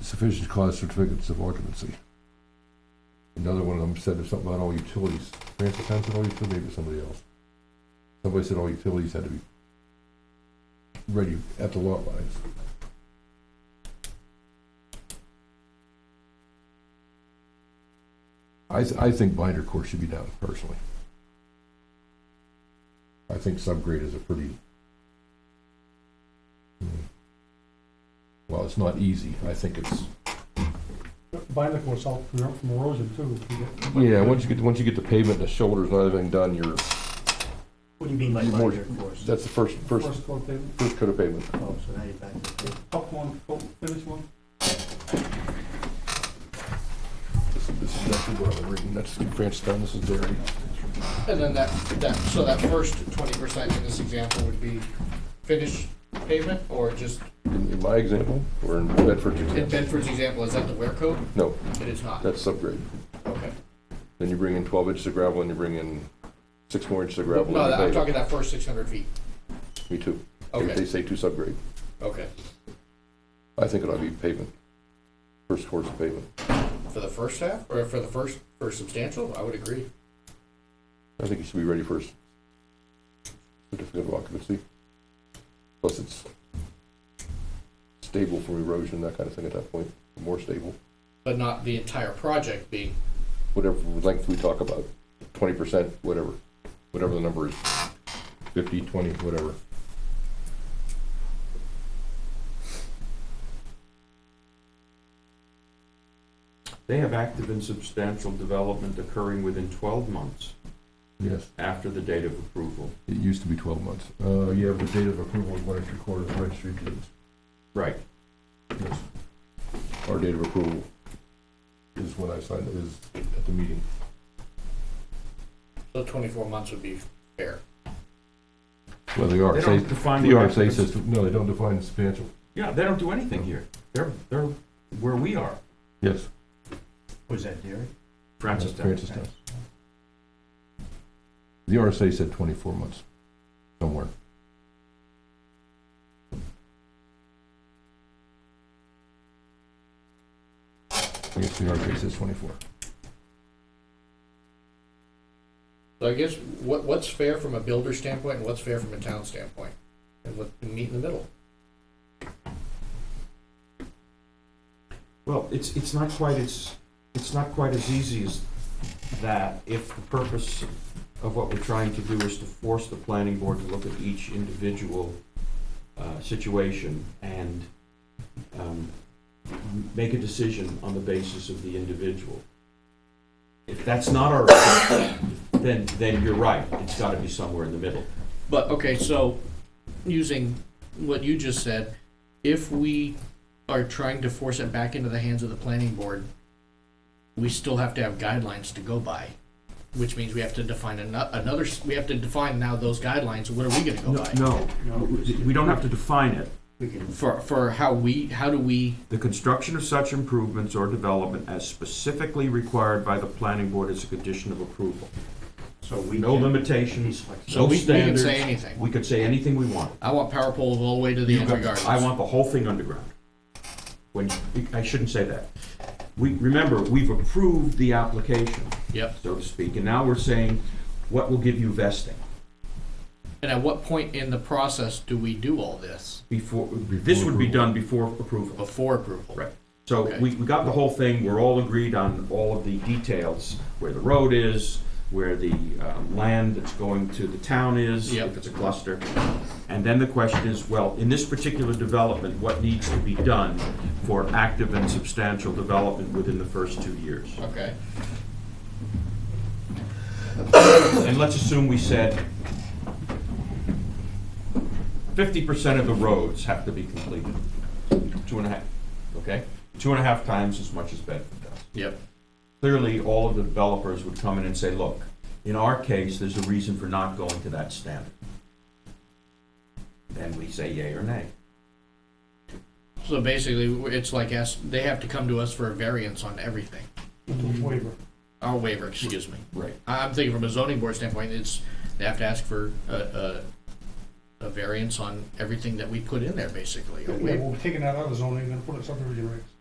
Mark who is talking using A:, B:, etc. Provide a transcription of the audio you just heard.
A: sufficient cause certificates of occupancy. Another one of them said there's something about all utilities, Ramsey Town said all utilities, maybe it was somebody else. Somebody said all utilities had to be ready at the lot lines. I, th- I think binder course should be down personally. I think subgrade is a pretty. Hmm. Well, it's not easy, I think it's,
B: Binder course out from from erosion too. if you get-
A: yeah, once you get, once you get the pavement and the shoulders and everything done, you're,
C: What do you mean by
A: More-
C: binder course?
A: that's the first, first,
B: First coat, then
A: first coat of pavement.
C: Oh, so now you're back to the
B: top one, coat, finish one.
A: This this is actually what I'm reading, that's Francetown, this is Derry.
D: And then that, that, so that first twenty percent in this example would be finished pavement, or just,
A: In in my example, or in Bedford's
D: in
A: example,
D: Bedford's example, is that the wear code?
A: no,
D: It is not,
A: that's subgrade.
D: okay.
A: Then you bring in twelve inches of gravel and you bring in six more inches of gravel.
D: No,
A: and you
D: I'm
A: pave it.
D: talking that first six hundred feet,
A: Me too. They- They
D: okay,
A: say two subgrade.
D: okay,
A: I think it ought to be pavement. First course of pavement.
D: for the first half, or for the first, for substantial, I would agree.
A: I think you should be ready first. Certificate of occupancy. Plus it's stable from erosion, that kind of thing at that point, more stable.
D: But not the entire project being,
A: Whatever length we talk about, twenty percent, whatever, whatever the number is, fifty, twenty, whatever.
E: They have active and substantial development occurring within twelve months
A: Yes,
E: after the date of approval.
A: it used to be twelve months. Uh, yeah, the date of approval is one and three quarters of registry deeds.
E: Right.
A: Yes. Our date of approval is when I signed, is at the meeting.
D: so twenty-four months would be fair.
A: Well, the
E: They
A: RSA,
E: don't define.
A: the
E: what active
A: RSA
E: and-
A: says, no, they don't define substantial.
E: Yeah, they don't do anything here. They're, they're where we are,
A: Yes.
C: Was that Derek?
E: Francistown.
A: Francistown. The RSA said twenty-four months, somewhere. I guess the RSA says twenty-four.
D: So I guess, what, what's fair from a builder standpoint, and what's fair from a town standpoint, and what, meet in the middle?
E: Well, it's, it's not quite as, it's not quite as easy as that if the purpose of what we're trying to do is to force the planning board to look at each individual uh, situation and um, m- make a decision on the basis of the individual. If that's not our, then, then you're right, it's gotta be somewhere in the middle.
D: But, okay, so, using what you just said, if we are trying to force it back into the hands of the planning board, we still have to have guidelines to go by, which means we have to define ano- another, s- we have to define now those guidelines, what are we gonna go by?
E: No, we don't have to define it.
C: We can,
D: For, for how we, how do we,
E: The construction of such improvements or development as specifically required by the planning board is a condition of approval.
C: so we.
E: No
C: can-
E: limitations,
D: so
E: no
D: we we can
E: standards.
D: say anything.
E: We could say anything we want.
D: I want power poles all the way to the
E: You
D: end
E: got-
D: regardless.
E: I want the whole thing underground. When, I shouldn't say that. We, remember, we've approved the application,
D: Yep,
E: so to speak, and now we're saying, what will give you vesting?
D: and at what point in the process do we do all this,
E: Before, this would be done before approval.
D: before approval?
E: Right. So
D: Okay.
E: we, we got the whole thing, we're all agreed on all of the details, where the road is, where the um, land that's going to the town is,
D: Yep.
E: if it's a cluster. And then the question is, well, in this particular development, what needs to be done for active and substantial development within the first two years?
D: Okay,
E: And let's assume we said fifty percent of the roads have to be completed, two and a half, okay? Two and a half times as much as Bedford does.
D: yep,
E: clearly, all of the developers would come in and say, look, in our case, there's a reason for not going to that standard. Then we say yay or nay.
D: So basically, it's like ask, they have to come to us for a variance on everything,
B: Waiver.
D: our waiver, excuse me.
E: Right.
D: I- I'm thinking from a zoning board standpoint, it's, they have to ask for a, a, a variance on everything that we put in there, basically, a
B: Yeah,
D: waiver.
B: we're taking that out of zoning and put it subdivision regs.